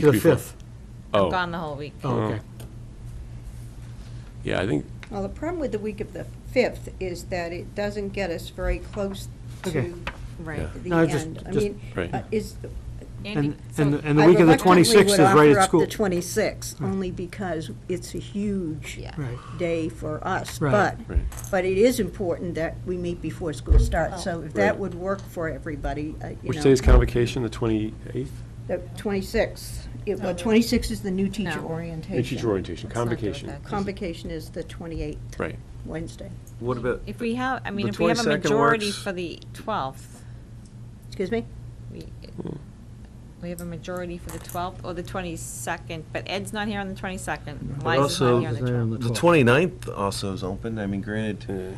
The before- 5th. I'm Oh, gone the whole week. Oh, okay. yeah, I think, Well, the problem with the week of the 5th is that it doesn't get us very close Okay. to Right. Yeah. the No, just- end. I just- mean, Right. uh, is, Andy, And, and so, the- and the week of the I reluctantly 26th is would right offer at up school. the 26th, only because it's a huge Yeah. Right. day for us. Right. But, Right. Oh. but it is important that we meet before school starts, so if that Right. would work for everybody, uh, you know. which day is convocation, the 28th? The 26th. It- Well, 26th is the new teacher No. orientation. And Teacher orientation, Let's not do it convocation. that. Convocation is the 28th, Right. Wednesday. What about, if we have, I mean, The if we have a 22nd majority works. for the 12th, Excuse me? we, we have a majority for the 12th or the 22nd, but Ed's not here on the 22nd. Liza's also- not here on the Liza's not on 12th. the the 29th also is open, I mean, granted,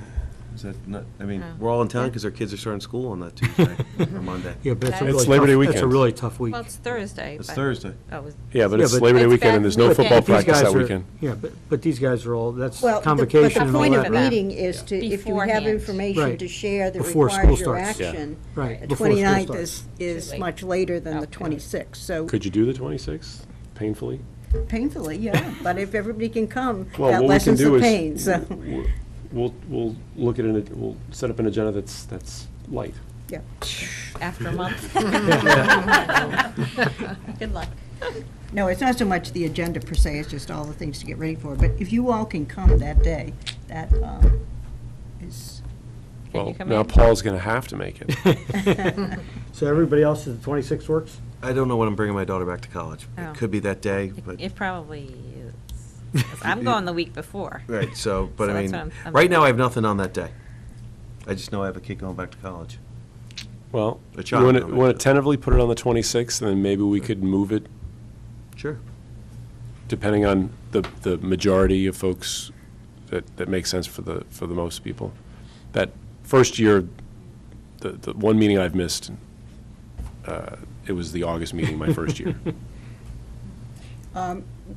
is that not, I mean, Oh. we're all in town because our kids are starting school on that Tuesday or Monday. Yeah, but it's a It's really Labor Day tough, that's a weekend. really tough week. Well, it's Thursday. It's but- Thursday. Oh, it was- Yeah, but Yeah, it's but- Labor Day It's weekend, and there's no back football weekend. These practice guys that are- weekend. Yeah, but, but these guys are all, that's Well, the- convocation and all But that. the point of a right? meeting is to, if you have Beforehand. information Right. to share that Before school requires your starts. Yeah. action. Right, The before school 29th starts. is, is much later than the Okay. 26th, so Could you do the 26th painfully? painfully, yeah, but if everybody can come, Well, what we that can lessens do the is pain, so, w- We'll, we'll look at it, we'll set up an agenda that's, that's light. yeah. After a month. Good luck. No, it's not so much the agenda per se, it's just all the things to get ready for, but if you all can come that day, that um, is, Can you Well, come now in? Paul's going to have to make it. So everybody else, the 26th works? I don't know when I'm bringing my daughter back to college. Oh. It could be that day, but, It probably is. 'Cause I'm going the week before. right, so, but So I that's mean, what I'm- right now I have nothing on that day. I just know I have a kid going back to college. Well, The you child want to, don't make want to it. tentatively put it on the 26th, and then maybe we could move it, Sure. depending on the, the majority of folks that, that makes sense for the, for the most people. That first year, the, the one meeting I've missed, uh, it was the August meeting, my first year.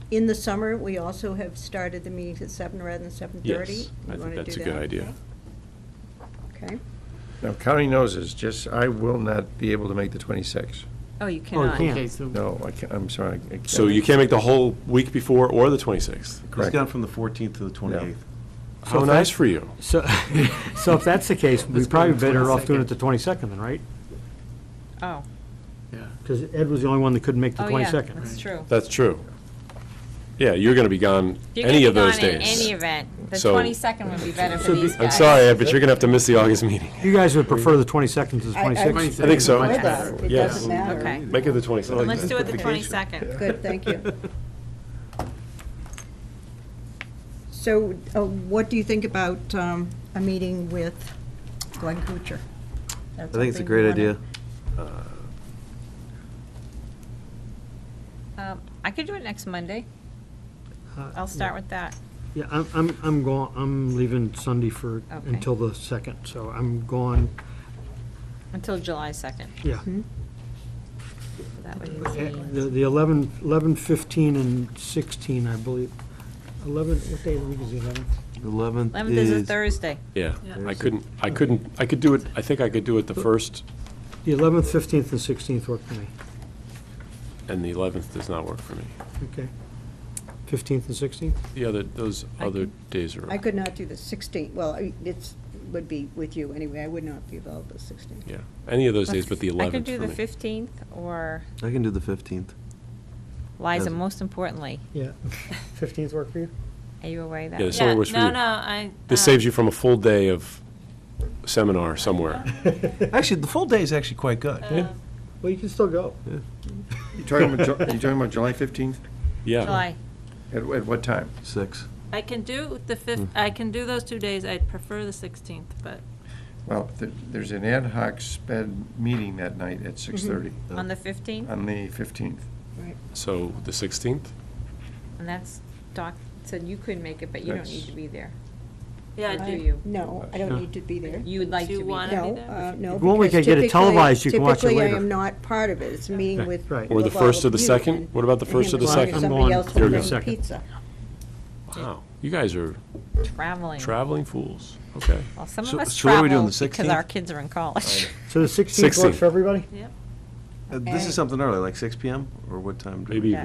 in the summer, we also have started the meetings at seven rather than 7:30. Yes, You I think wanna that's a do good that? idea. Okay. Now, county noses, just, I will not be able to make the 26th. Oh, you Oh, cannot. you Okay, can't. so No, I can't, I'm sorry. I can't. So you can't make the whole week before or the 26th. It's Correct. gone from the 14th to the 28th. How nice for you. So, so if that's the case, we're Let's go to probably the better off doing it the 22nd then, right? Oh, Because Ed was the only one that couldn't make the oh, yeah, 22nd. that's true. That's true. Yeah, you're going to be gone You're gonna any be of those gone in days. Any event, the So- 22nd would be better for So be- these I'm guys. sorry, Ed, but you're going to have to miss the August meeting. You guys would prefer the 22nd to the I- I- 26th? 26th. I think so. Or that, It Yes. doesn't matter. Okay, Make it the 22nd. let's do it the 22nd. Good, thank you. So uh, what do you think about um, a meeting with Glenn Kuchar? I think it's a great idea. Um, I could do it next Monday. I'll start with that. Uh, Yeah, I'm, I'm, I'm going, I'm leaving Sunday for, Okay. until the 2nd, so I'm gone, Until July 2nd. yeah. That would Eh, be, The the 11, 11, 15, and 16, I believe. 11, what day of the week is the 11th? 11th 11th is a is, Thursday. Yeah, I couldn't, I couldn't, I could do it, I think I could do it the 1st, The 11th, 15th, and 16th work for me. and the 11th does not work for me. Okay. 15th and 16th? The other, those other days I are, could not do the 16th, well, I- it's, would be with you anyway, I would not be available the 16th. yeah, any of those days but the I could 11th do the for me. 15th or, I can do the 15th. Liza, Doesn't- most importantly, Yeah. 15th work for you? are you away that Yeah, week? this only works for No, you. no, I. This uh, saves you from a full day of seminar somewhere. Actually, the full day is actually quite good. Oh. Well, you can still go. You talking about, Ju- you talking about July 15th? Yeah. July. At, at what time? Six. I can do the fifth, I can do those two days. I'd prefer the 16th, but Well, th- there's an ad hoc sped meeting that night at 6:30 On the Uh, 15th, on the 15th. So the 16th? and that's, Doc said you couldn't make it, but you don't need to be there. yeah, I Uh, Do do. you? No, I don't need to be there. You would like Do to you be wanna there. be No, there? uh, no. Well, we because could get it typically- televised, you can watch it Typically, later. I am not part of it, it's a meeting with. Right. Or the with all first or the of you second? and- What about the and first or him the or second? I'm Somebody going else third or will bring second. pizza. Wow, you guys are Traveling. traveling fools. Okay. Well, some of So- us so what are we doing, travel the because our 16th? kids are in college. So the 16th works 16th. for everybody? Yep. Uh, This Okay. is something early, like six PM or what time? do we- Maybe